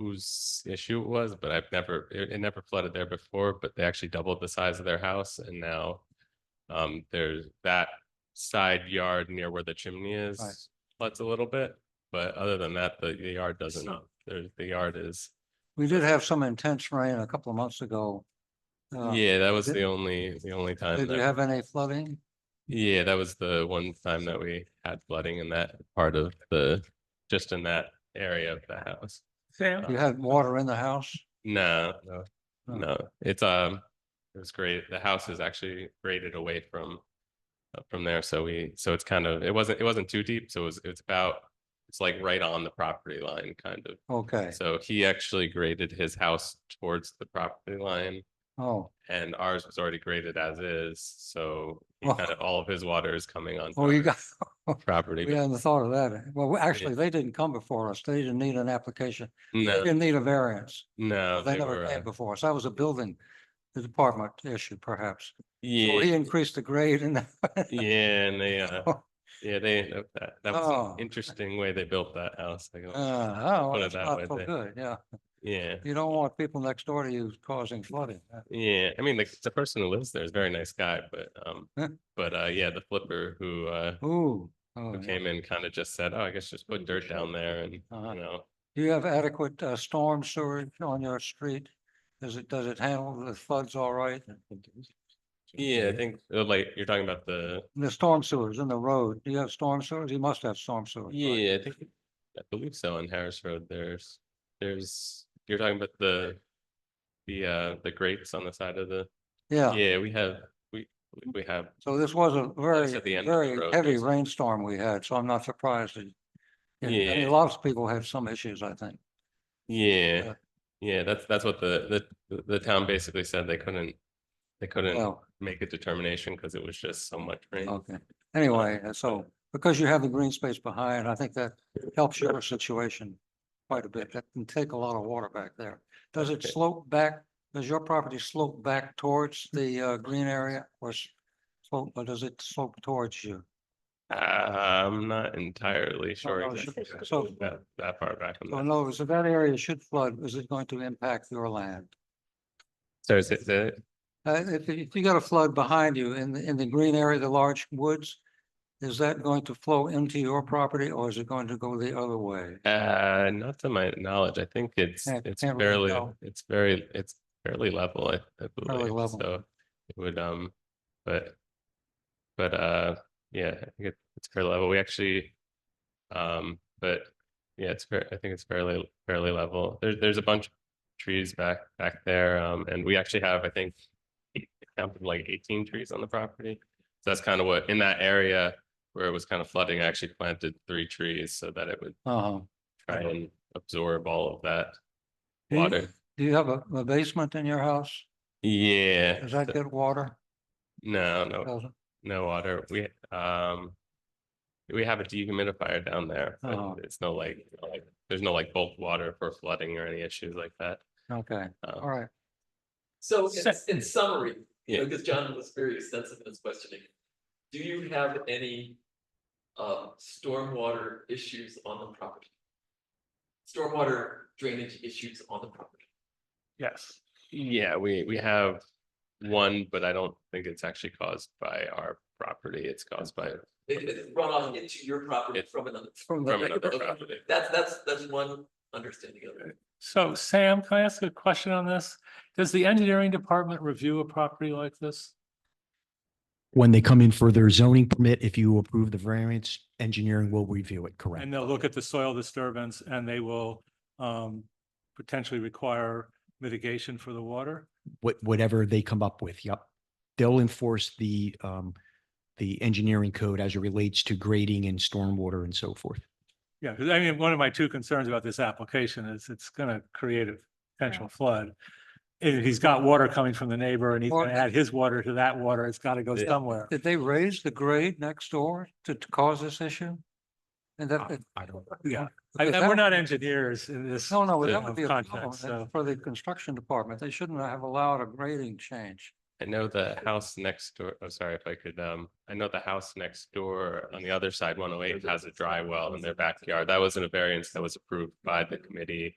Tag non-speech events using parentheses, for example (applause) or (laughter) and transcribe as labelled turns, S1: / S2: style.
S1: whose issue it was, but I've never, it, it never flooded there before, but they actually doubled the size of their house and now um, there's that side yard near where the chimney is floods a little bit, but other than that, the, the yard doesn't.
S2: So-
S1: There's, the yard is,
S2: We did have some intense rain a couple of months ago. Uh,
S1: yeah, that was
S2: did-
S1: the only, the only time.
S2: Did
S1: that-
S2: you have any flooding?
S1: Yeah, that was the one time that we had flooding in that part of the, just in that area of the house.
S3: Sam,
S2: You had water in the house?
S1: No, no,
S2: Oh.
S1: no, it's, um, it was great. The house is actually graded away from, uh, from there, so we, so it's kind of, it wasn't, it wasn't too deep, so it was, it's about, it's like right on the property line, kind of.
S2: Okay,
S1: So he actually graded his house towards the property line
S2: oh,
S1: and ours was already graded as is, so he
S2: Oh.
S1: kind of, all of his water is coming on.
S2: oh, you got, (laughs) Oh,
S1: Property.
S2: we
S1: but
S2: hadn't thought of that. Well, we- actually, they didn't come before us. They didn't need an application. They
S1: No,
S2: didn't need a variance.
S1: no.
S2: They
S1: they
S2: never
S1: were,
S2: came
S1: uh,
S2: before us. That was a building department issue perhaps. So
S1: Yeah,
S2: He increased the grade and (laughs) uh,
S1: yeah, and they, uh, yeah, they, uh, that, that was
S2: Oh.
S1: an interesting way they built that house. I go,
S2: Uh, oh,
S1: Put it
S2: that's
S1: that way,
S2: not so
S1: they-
S2: good, yeah.
S1: Yeah,
S2: You don't want people next door to you causing flooding. Uh,
S1: yeah. I mean, the, the person who lives there is a very nice guy, but, um,
S2: Huh.
S1: but, uh, yeah, the flipper who, uh,
S2: Ooh. oh,
S1: who
S2: yeah.
S1: came in kind of just said, oh, I guess just put dirt down there and, you
S2: Uh-huh.
S1: know,
S2: Do you have adequate uh, storm sewage on your street? Does it, does it handle the floods all right?
S1: yeah, I think, uh, like, you're talking about the,
S2: And The storm sewers in the road, do you have storm sewers? You must have storm sewers. right?
S1: yeah, I think, I believe so on Harris Road, there's, there's, you're talking about the, the, uh, the grates on the side of the,
S2: Yeah,
S1: yeah, we have, we, we have
S2: so this was a
S1: That's at the
S2: very,
S1: end of the
S2: very
S1: road,
S2: heavy
S1: yes.
S2: rainstorm we had, so I'm not surprised. that- and- and
S1: Yeah.
S2: Lots of people have some issues, I think.
S1: Yeah,
S2: Yeah.
S1: yeah, that's, that's what the, the, the town basically said, they couldn't, they couldn't
S2: Well, Oh.
S1: make a determination because it was just so much rain.
S2: okay. Anyway, uh, so because you have the green space behind, I think that helps your situation quite a bit. That can take a lot of water back there. Does it
S1: Okay.
S2: slope back, does your property slope back towards the uh, green area or s- slope, or does it slope towards you?
S1: Uh, I'm not entirely sure.
S2: Oh, no, it
S1: exactly
S2: should- so-
S1: That, that far back on
S2: So
S1: that.
S2: in other words, if that area should flood, is it going to impact your land?
S1: So is it, is it-
S2: Uh, if, if you got a flood behind you in the, in the green area, the large woods, is that going to flow into your property or is it going to go the other way?
S1: uh, not to my knowledge, I think it's,
S2: Can't-
S1: it's
S2: can't really
S1: fairly,
S2: tell.
S1: it's very, it's fairly level, I, I believe,
S2: level.
S1: so. It would, um, but, but, uh, yeah, I think it- it's fairly level, we actually, um, but Yeah, it's fair. I think it's fairly fairly level. There's there's a bunch of trees back back there, um, and we actually have I think eight- I counted like eighteen trees on the property. So that's kind of what in that area where it was kind of flooding. I actually planted three trees so that it would
S2: Uh-huh.
S1: try and absorb all of that
S2: Do you-
S1: water.
S2: Do you have a, a basement in your house?
S1: Yeah,
S2: Does that Oh.
S1: th-
S2: get water?
S1: no, no,
S2: Doesn't?
S1: no water. We um. We have a dehumidifier down there,
S2: Oh.
S1: but it's no like, like, there's no like bulk water for flooding or any issues like that.
S2: Okay,
S1: Um,
S2: all right.
S4: So in,
S3: Sec-
S4: in summary,
S1: Yeah.
S4: because John was very extensive in his questioning, do you have any um, stormwater issues on the property? Stormwater drainage issues on the property?
S3: yes.
S1: Yeah, we, we have one, but I don't think it's actually caused by our property. It's caused by,
S4: It, it's run off into your property
S1: It's
S4: from another.
S2: From
S1: from
S2: the,
S1: another
S4: Okay.
S1: property.
S4: That's, that's, that's one understanding of it.
S3: So Sam, can I ask a question on this? Does the engineering department review a property like this?
S5: When they come in for their zoning permit, if you approve the variance, engineering will review it, correct?
S3: And they'll look at the soil disturbance and they will um potentially require mitigation for the water?
S5: What, whatever they come up with, yep. They'll enforce the, um, the engineering code as it relates to grading and stormwater and so forth.
S3: Yeah, because I mean, one of my two concerns about this application is it's gonna create a potential flood. If he's got water coming from the neighbor and he's
S2: Or-
S3: gonna add his water to that water, it's gotta go
S1: Yeah.
S3: somewhere.
S2: did they raise the grade next door to to cause this issue? And that,
S5: I
S2: it-
S5: I don't,
S3: Yeah, Uh, I-
S2: because
S3: I-
S2: that
S3: we're
S2: would
S3: not
S2: be-
S3: engineers in this.
S2: No, no, that
S3: uh,
S2: would be a problem
S3: context,
S2: that-
S3: so-
S2: for the construction department. They shouldn't have allowed a grading change.
S1: I know the house next door, oh, sorry if I could, um, I know the house next door on the other side, one oh eight, has a dry well in their backyard. That wasn't a variance that was approved by the committee.